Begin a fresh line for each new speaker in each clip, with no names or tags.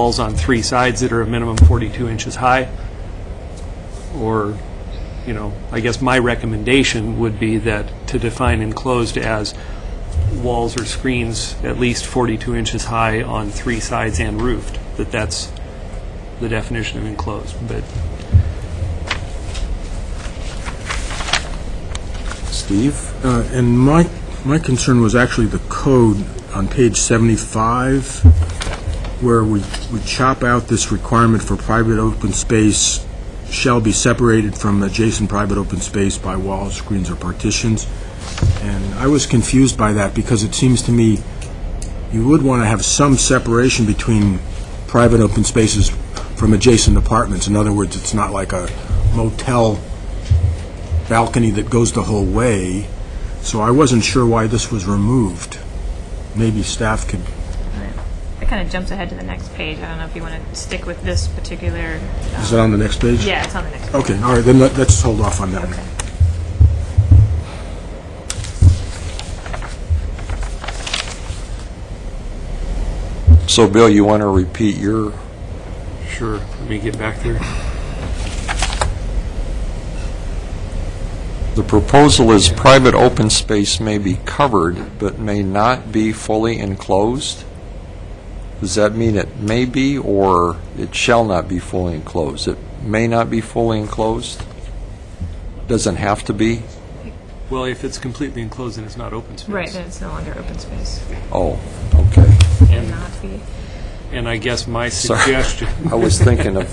walls on three sides that are a minimum 42 inches high, or, you know, I guess my recommendation would be that to define enclosed as walls or screens at least 42 inches high on three sides and roofed, that that's the definition of enclosed, but
Steve? Uh, And my, my concern was actually the code on page 75, where we, we chop out this requirement for private open space shall be separated from adjacent private open space by walls, screens, or partitions. And I was confused by that, because it seems to me you would want to have some separation between private open spaces from adjacent apartments. In other words, it's not like a motel balcony that goes the whole way, so I wasn't sure why this was removed. Maybe staff could,
That kind of jumps ahead to the next page. I don't know if you want to stick with this particular. um,
is it on the next page?
Yeah, it's on the next. page.
Okay, all right, then let- let's hold off on that one.
So, Bill, you want to repeat your,
sure, let me get back there.
the proposal is private open space may be covered, but may not be fully enclosed? Does that mean it may be, or it shall not be fully enclosed? It may not be fully enclosed? Doesn't have to be?
Well, if it's completely enclosed, then it's not open space.
Right, then it's no longer open space.
Oh, okay.
And-
Not be.
And I guess my
Sorry.
suggestion,
I was thinking of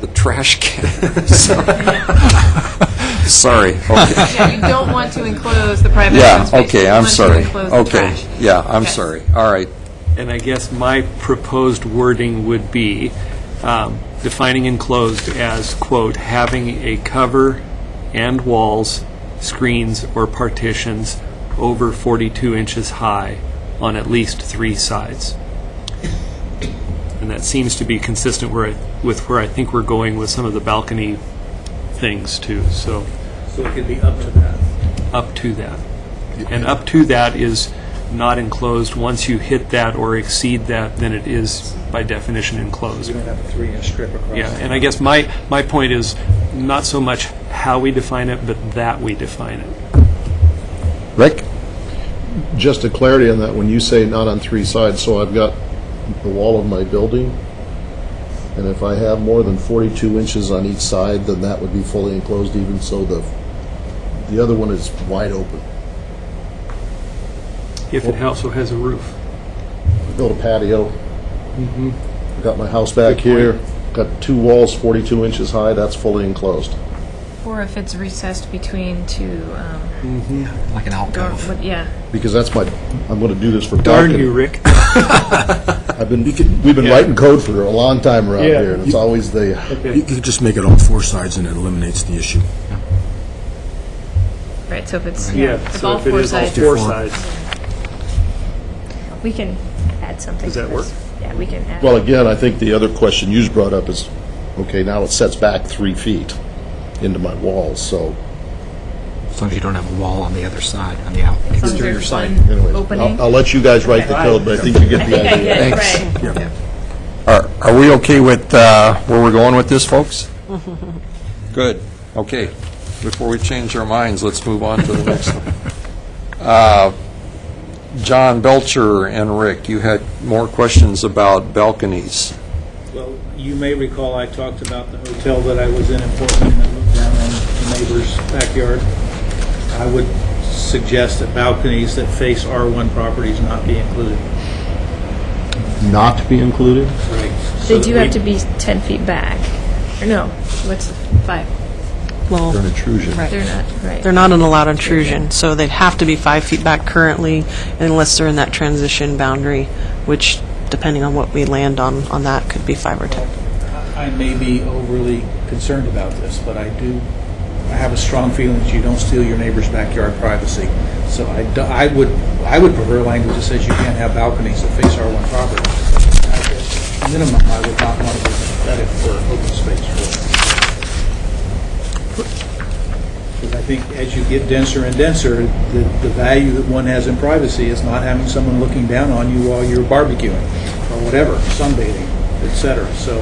the trash can. Sorry, okay.
Yeah, you don't want to enclose the private
Yeah,
open space.
okay,
You
I'm
want to
sorry.
enclose the
Okay,
trash.
yeah, I'm
Okay.
sorry. All right,
And I guess my proposed wording would be um, defining enclosed as, quote, "having a cover and walls, screens, or partitions over 42 inches high on at least three sides." And that seems to be consistent where I- with where I think we're going with some of the balcony things, too, so.
So it could be up to that.
up to that. And up to that is not enclosed. Once you hit that or exceed that, then it is by definition enclosed.
You don't have a three-inch strip across.
Yeah, and I guess my, my point is not so much how we define it, but that we define it.
Rick?
Just a clarity on that, when you say not on three sides, so I've got the wall of my building, and if I have more than 42 inches on each side, then that would be fully enclosed even so the, the other one is wide open.
If it also has a roof.
Built a patio.
Mm-hmm.
Got my house back here, got two walls 42 inches high, that's fully enclosed.
Or if it's recessed between two. Um,
Mm-hmm. like an
door,
alcove.
what- yeah.
Because that's my, I'm going to do this for
Darn you,
balcony.
Rick.
I've been, we've been writing code for a long time around
Yeah.
here, and it's always the,
You could just make it all four sides and it eliminates the issue.
Right. So if it's yeah,
Yeah,
if
so
all
if it
four
is all
sides,
four sides,
we can add something.
Does
to
that
this.
work?
Yeah, we can add.
Well, again, I think the other question you brought up is, okay, now it sets back three feet into my walls, so
As long as you don't have a wall on the other side, on the out.
as long as
exterior
there's
side,
one
anyway.
Opening.
I'll, I'll let you guys write the
Okay.
code, but I think you get the
yeah,
idea.
yeah,
Thanks.
right.
Are, are we okay with uh, where we're going with this, folks? Good, okay. Before we change our minds, let's move on to the next one. Uh, John Belcher and Rick, you had more questions about balconies.
Well, you may recall I talked about the hotel that I was in in Portland and moved down on the neighbor's backyard. I would suggest that balconies that face R1 properties not be included.
Not be included?
Right.
They do have to be ten feet back. Or no, what's the five?
An
Well,
intrusion.
They're not right.
they're not an allowed intrusion, so they'd have to be five feet back currently unless they're in that transition boundary, which, depending on what we land on, on that, could be five or 10.
I may be overly concerned about this, but I do, I have a strong feeling that you don't steal your neighbor's backyard privacy. So I, do- I would, I would prefer language that says you can't have balconies that face R1 property. At Minimum, I would not want to be vetted for open space for. Because I think as you get denser and denser, the, the value that one has in privacy is not having someone looking down on you while you're barbecuing, or whatever, sunbathing. et cetera. So